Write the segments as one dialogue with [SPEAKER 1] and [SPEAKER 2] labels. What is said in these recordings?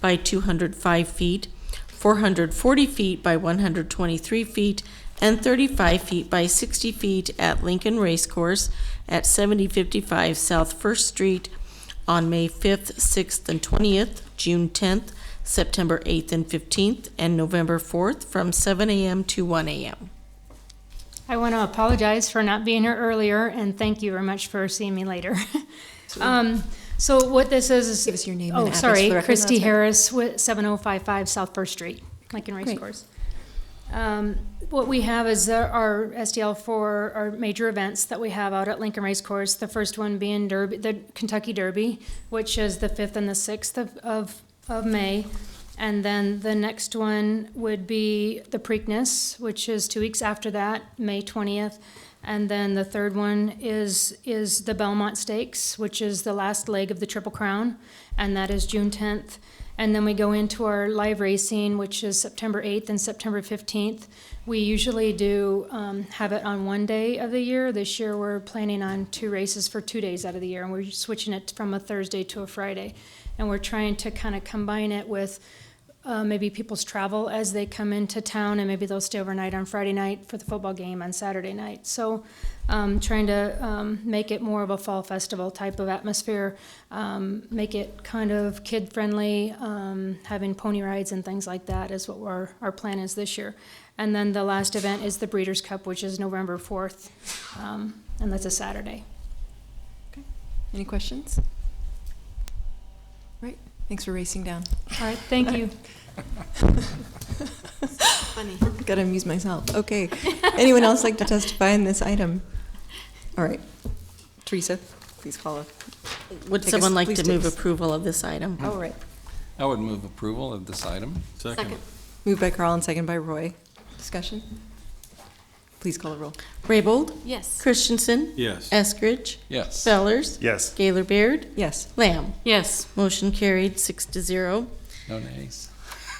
[SPEAKER 1] by 205 feet, 440 feet by 123 feet, and 35 feet by 60 feet at Lincoln Racecourse at 7055 South First Street on May 5th, 6th, and 20th, June 10th, September 8th and 15th, and November 4th from 7 a.m. to 1 a.m.
[SPEAKER 2] I want to apologize for not being here earlier, and thank you very much for seeing me later. Um, So what this is, is.
[SPEAKER 3] Give us your name and
[SPEAKER 2] Oh,
[SPEAKER 3] address
[SPEAKER 2] sorry,
[SPEAKER 3] for the record.
[SPEAKER 2] Christy
[SPEAKER 3] That's fine.
[SPEAKER 2] Harris with 7055 South First Street, Lincoln Race
[SPEAKER 3] Great.
[SPEAKER 2] Course. Um, What we have is our- our SDL for our major events that we have out at Lincoln Race Course. The first one being Derby, the Kentucky Derby, which is the 5th and the 6th of, of, of May. And then the next one would be the Preakness, which is two weeks after that, May 20th. And then the third one is, is the Belmont Stakes, which is the last leg of the Triple Crown, and that is June 10th. And then we go into our live racing, which is September 8th and September 15th. We usually do um, have it on one day of the year. This year, we're planning on two races for two days out of the year, and we're switching it from a Thursday to a Friday. And we're trying to kind of combine it with uh, maybe people's travel as they come into town, and maybe they'll stay overnight on Friday night for the football game on Saturday night. So, um, trying to um, make it more of a fall festival type of atmosphere, um, make it kind of kid friendly, um, having pony rides and things like that is what our, our plan is this year. And then the last event is the Breeders' Cup, which is November 4th, um, and that's a Saturday.
[SPEAKER 3] Any questions? Right. Thanks for racing down.
[SPEAKER 2] All right, thank you.
[SPEAKER 1] Funny.
[SPEAKER 3] Got to amuse myself. Okay. Anyone else like to testify on this item? All right. Teresa, please follow.
[SPEAKER 1] Would
[SPEAKER 3] Take us-
[SPEAKER 1] someone like
[SPEAKER 3] please
[SPEAKER 1] to
[SPEAKER 3] take
[SPEAKER 1] move
[SPEAKER 3] us.
[SPEAKER 1] approval of this item?
[SPEAKER 3] All right.
[SPEAKER 4] I would move approval of this item.
[SPEAKER 1] Second.
[SPEAKER 3] Moved by Carl and second by Roy. Discussion? Please call the roll.
[SPEAKER 1] Raybold?
[SPEAKER 5] Yes.
[SPEAKER 1] Christensen?
[SPEAKER 6] Yes.
[SPEAKER 1] Eskridge?
[SPEAKER 4] Yes.
[SPEAKER 1] Fellers?
[SPEAKER 6] Yes.
[SPEAKER 1] Gaylor Baird?
[SPEAKER 3] Yes.
[SPEAKER 1] Lamb?
[SPEAKER 5] Yes.
[SPEAKER 1] Motion carried, six to zero.
[SPEAKER 4] No nays.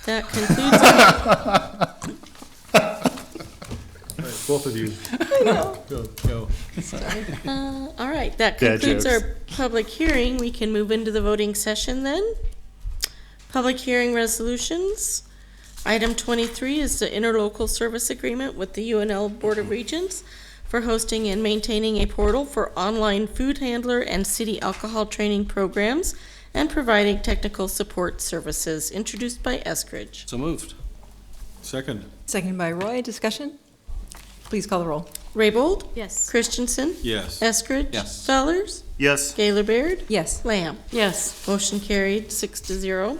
[SPEAKER 1] That concludes our
[SPEAKER 6] Both of you. Go, go.
[SPEAKER 1] Uh, All right, that
[SPEAKER 6] Dad
[SPEAKER 1] concludes
[SPEAKER 6] jokes.
[SPEAKER 1] our public hearing. We can move into the voting session then. Public hearing resolutions. Item twenty-three is the interlocal service agreement with the UNL Board of Regents for hosting and maintaining a portal for online food handler and city alcohol training programs and providing technical support services, introduced by Eskridge.
[SPEAKER 4] So moved.
[SPEAKER 6] Second.
[SPEAKER 3] Second by Roy. Discussion? Please call the roll.
[SPEAKER 1] Raybold?
[SPEAKER 5] Yes.
[SPEAKER 1] Christensen?
[SPEAKER 6] Yes.
[SPEAKER 1] Eskridge?
[SPEAKER 4] Yes.
[SPEAKER 1] Fellers?
[SPEAKER 6] Yes.
[SPEAKER 1] Gaylor Baird?
[SPEAKER 3] Yes.
[SPEAKER 1] Lamb?
[SPEAKER 5] Yes.
[SPEAKER 1] Motion carried, six to zero.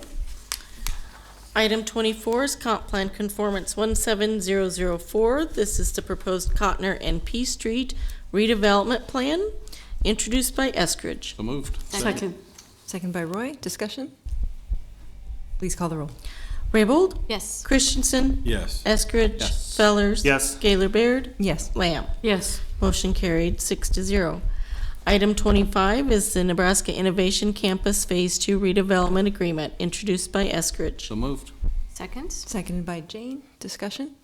[SPEAKER 1] Item twenty-four is comp plan conformance one seven zero zero four. This is the proposed Cotner and P Street redevelopment plan, introduced by Eskridge.
[SPEAKER 4] So moved.
[SPEAKER 5] Second.
[SPEAKER 3] Second by Roy. Discussion? Please call the roll.
[SPEAKER 1] Raybold?
[SPEAKER 5] Yes.
[SPEAKER 1] Christensen?
[SPEAKER 6] Yes.
[SPEAKER 1] Eskridge?
[SPEAKER 4] Yes.
[SPEAKER 1] Fellers?
[SPEAKER 6] Yes.
[SPEAKER 1] Gaylor Baird?
[SPEAKER 3] Yes.
[SPEAKER 1] Lamb?
[SPEAKER 5] Yes.
[SPEAKER 1] Motion carried, six to zero. Item twenty-five is the Nebraska Innovation Campus Phase Two redevelopment agreement, introduced by Eskridge.
[SPEAKER 4] So moved.
[SPEAKER 5] Second.
[SPEAKER 3] Seconded by Jane. Discussion?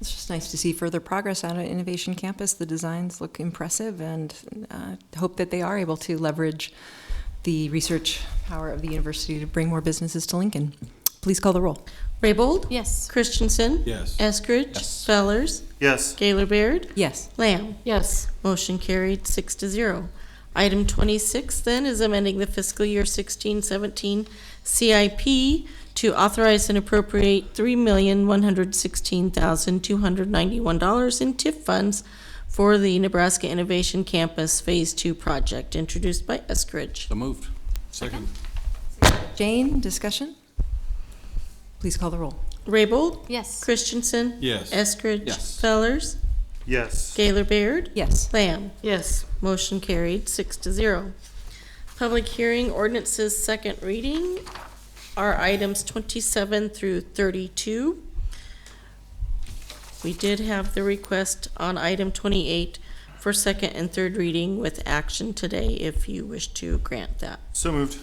[SPEAKER 3] It's just nice to see further progress out at Innovation Campus. The designs look impressive and uh, hope that they are able to leverage the research power of the university to bring more businesses to Lincoln. Please call the roll.
[SPEAKER 1] Raybold?
[SPEAKER 5] Yes.
[SPEAKER 1] Christensen?
[SPEAKER 6] Yes.
[SPEAKER 1] Eskridge?
[SPEAKER 4] Yes.
[SPEAKER 1] Fellers?
[SPEAKER 6] Yes.
[SPEAKER 1] Gaylor Baird?
[SPEAKER 3] Yes.
[SPEAKER 1] Lamb?
[SPEAKER 5] Yes.
[SPEAKER 1] Motion carried, six to zero. Item twenty-six then is amending the fiscal year sixteen seventeen CIP to authorize and appropriate three million, one hundred sixteen thousand, two hundred ninety-one dollars in TIF funds for the Nebraska Innovation Campus Phase Two project, introduced by Eskridge.
[SPEAKER 4] So moved.
[SPEAKER 6] Second.
[SPEAKER 3] Jane, discussion? Please call the roll.
[SPEAKER 1] Raybold?
[SPEAKER 5] Yes.
[SPEAKER 1] Christensen?
[SPEAKER 6] Yes.
[SPEAKER 1] Eskridge?
[SPEAKER 4] Yes.
[SPEAKER 1] Fellers?
[SPEAKER 6] Yes.
[SPEAKER 1] Gaylor Baird?
[SPEAKER 3] Yes.
[SPEAKER 1] Lamb?
[SPEAKER 5] Yes.
[SPEAKER 1] Motion carried, six to zero. Public hearing ordinances, second reading are items twenty-seven through thirty-two. We did have the request on item twenty-eight for second and third reading with action today if you wish to grant that.
[SPEAKER 6] So moved.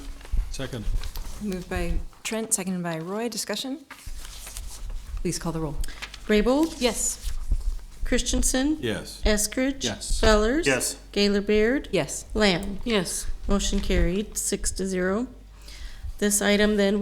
[SPEAKER 6] Second.
[SPEAKER 3] Moved by Trent, seconded by Roy. Discussion? Please call the roll.
[SPEAKER 1] Raybold?
[SPEAKER 5] Yes.
[SPEAKER 1] Christensen?
[SPEAKER 6] Yes.
[SPEAKER 1] Eskridge?
[SPEAKER 4] Yes.
[SPEAKER 1] Fellers?
[SPEAKER 6] Yes.
[SPEAKER 1] Gaylor Baird?
[SPEAKER 3] Yes.
[SPEAKER 1] Lamb?
[SPEAKER 5] Yes.
[SPEAKER 1] Motion carried, six to zero. This item then